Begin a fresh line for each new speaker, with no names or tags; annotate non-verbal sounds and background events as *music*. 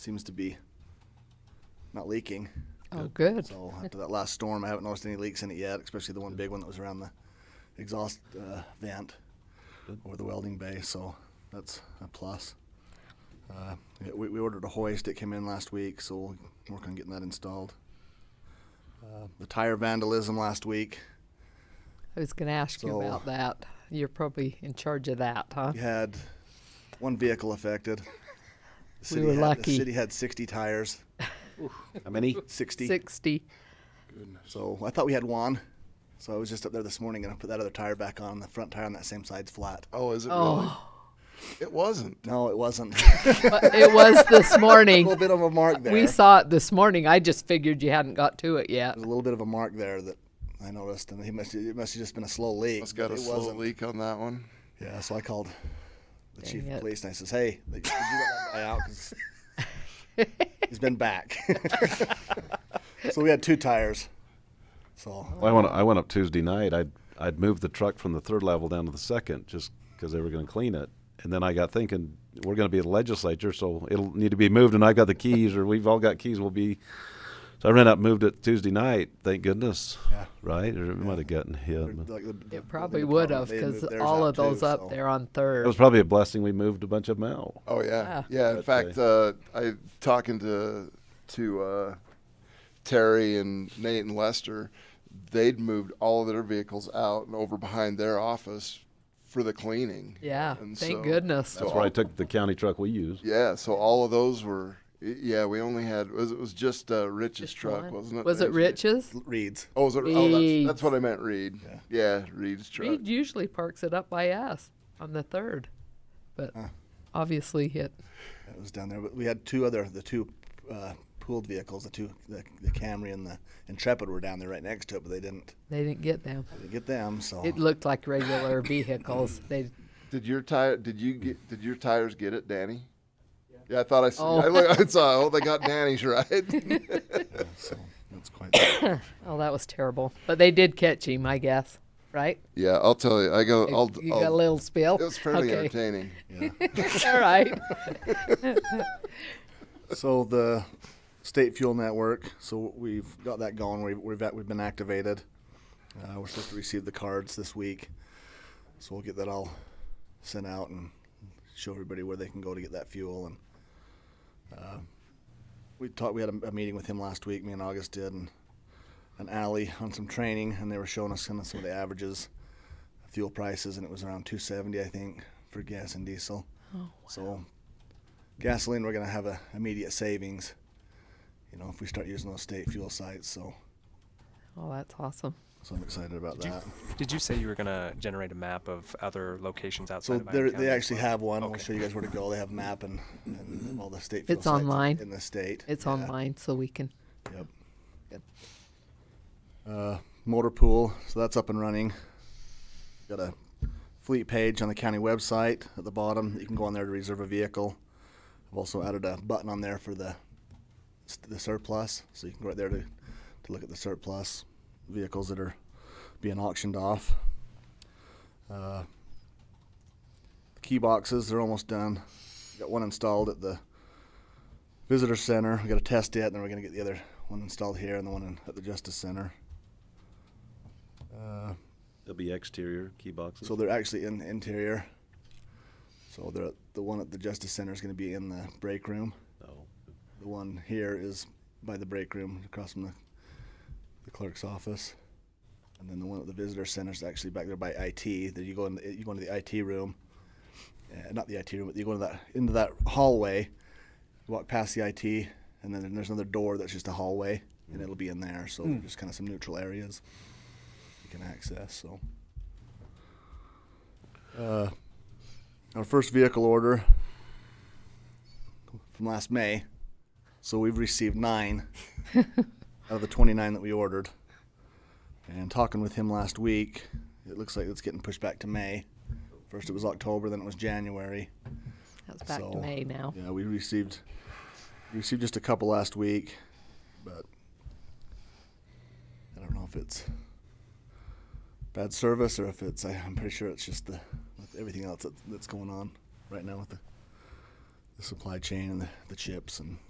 seems to be not leaking.
Oh, good.
So after that last storm, I haven't noticed any leaks in it yet, especially the one big one that was around the exhaust uh, vent or the welding bay. So that's a plus. Uh, yeah, we, we ordered a hoist. It came in last week, so we'll work on getting that installed. Uh, the tire vandalism last week.
I was going to ask you
So-
about that. You're probably in charge of that, huh?
We had one vehicle affected. The
We were
had,
lucky.
The city had 60 tires.
How many?
60.
60.
So I thought we had one. So I was just up there this morning and I put that other tire back on. The front tire on that same side's flat.
Oh, is it really?
Oh,
It wasn't.
No, it wasn't. *laughs*
but it was this
a little
morning.
bit of a mark there.
*laughs* We saw it this morning. I just figured you hadn't got to it yet.
There's a little bit of a mark there that I noticed, and he must it must have just been a slow leak.
It's got
but
a
it
slow
wasn't.
leak on that one.
Yeah, so I called the chief
Dang
of
it.
police and I says, "Hey, did you let that guy out?
*laughs*
'Cause he's been back." *laughs* so we had two tires. So
Oh.
I went. I went up Tuesday night. I'd I'd moved the truck from the third level down to the second just because they were going to clean it. And then I got thinking we're going to be at the legislature, so it'll need to be moved. And I got the keys, or we've all got keys. We'll be. So I ran up, and moved it Tuesday night. Thank goodness.
Yeah.
Right? Or it might have gotten hit. but-
like, the- the-
It probably
the
would
department,
have
they had
because
moved theirs
all
out
of those
too,
up
so-
there on
It was
third.
probably a blessing we moved a bunch of them out.
Oh yeah,
Ah.
yeah. In fact, uh, I talking to to uh, Terry and Nate and Lester. They'd moved all of their vehicles out and over behind their office for the cleaning.
Yeah,
And
thank
so-
goodness.
That's where I took the county truck we used.
Yeah, so all of those were. y- Yeah, we only had was it was just uh, Rich's
Just
truck,
one.
wasn't it?
Was it
Nancy?
Rich's?
Reeds.
Oh, was it? Oh, that's,
Reed's.
that's what I meant. Reed. Yeah, Reed's truck.
Reed usually parks it up by us on the third, but obviously it.
That was down there. But we had two other the two uh, pooled vehicles, the two the, the Camry and the Intrepid were down there right next to it, but they didn't
They didn't get them.
they didn't get them. So
It looked like regular vehicles. They
Did your tire? Did you get? Did your tires get it, Danny? Yeah, I thought I saw.
Oh.
I, look, I saw. Oh, they got
*laughs*
Danny's right.
so that's quite.
Oh, that was terrible. But they did catch him, I guess. Right?
yeah, I'll tell you. I go.
You-
I'll.
you
I'll
got a little spill.
it was
*laughs*
fairly
okay.
entertaining.
*laughs* All right.
*laughs*
So the state fuel network. So we've got that going. We've we've, at, we've been activated. Uh, we're supposed to receive the cards this week, so we'll get that all sent out and show everybody where they can go to get that fuel. And uh, we talked. We had a, a meeting with him last week. Me and August did, and an alley on some training, and they were showing us kind of some of the averages, fuel prices, and it was around 270, I think, for gas and diesel. So gasoline, we're going to have a immediate savings, you know, if we start using those state fuel sites. So,
Oh, that's awesome.
so I'm excited about
Did you,
that.
did you say you were going to generate a map of other locations outside
So
of
they
Iron County
they
as
actually
well?
have one. We'll
Okay.
show you guys where to go. They have a map and, and all the state fuel
It's
sites
online.
in the state.
It's
Yeah.
online, so we can.
Yep.
Good.
Uh, motor pool, so that's up and running. Got a fleet page on the county website at the bottom. You can go on there to reserve a vehicle. I've also added a button on there for the the surplus, so you can go right there to to look at the surplus vehicles that are being auctioned off. Uh, the key boxes, they're almost done. Got one installed at the visitor center. We got to test it, and then we're gonna get the other one installed here, and the one in, at the justice center. Uh,
It'll be exterior key boxes.
so they're actually in the interior. So they're, the one at the justice center is gonna be in the break room.
No.
The one here is by the break room, across from the, the clerk's office. And then the one at the visitor center is actually back there by IT. Then you go in, the, you go into the IT room, uh, not the IT room, but you go into that into that hallway. You walk past the IT, and then there's another door that's just a hallway, and it'll be in there. So just kind of some neutral areas you can access. So. Uh, our first vehicle order from last May. So we've received nine out of the 29 that we ordered. And talking with him last week, it looks like it's getting pushed back to May. First it was October, then it was January.
That's back to
So,
May now.
Yeah, we received received just a couple last week, but I don't know if it's bad service or if it's. I, I'm pretty sure it's just the with everything else that, that's going on right now with the, the supply chain and the, the chips and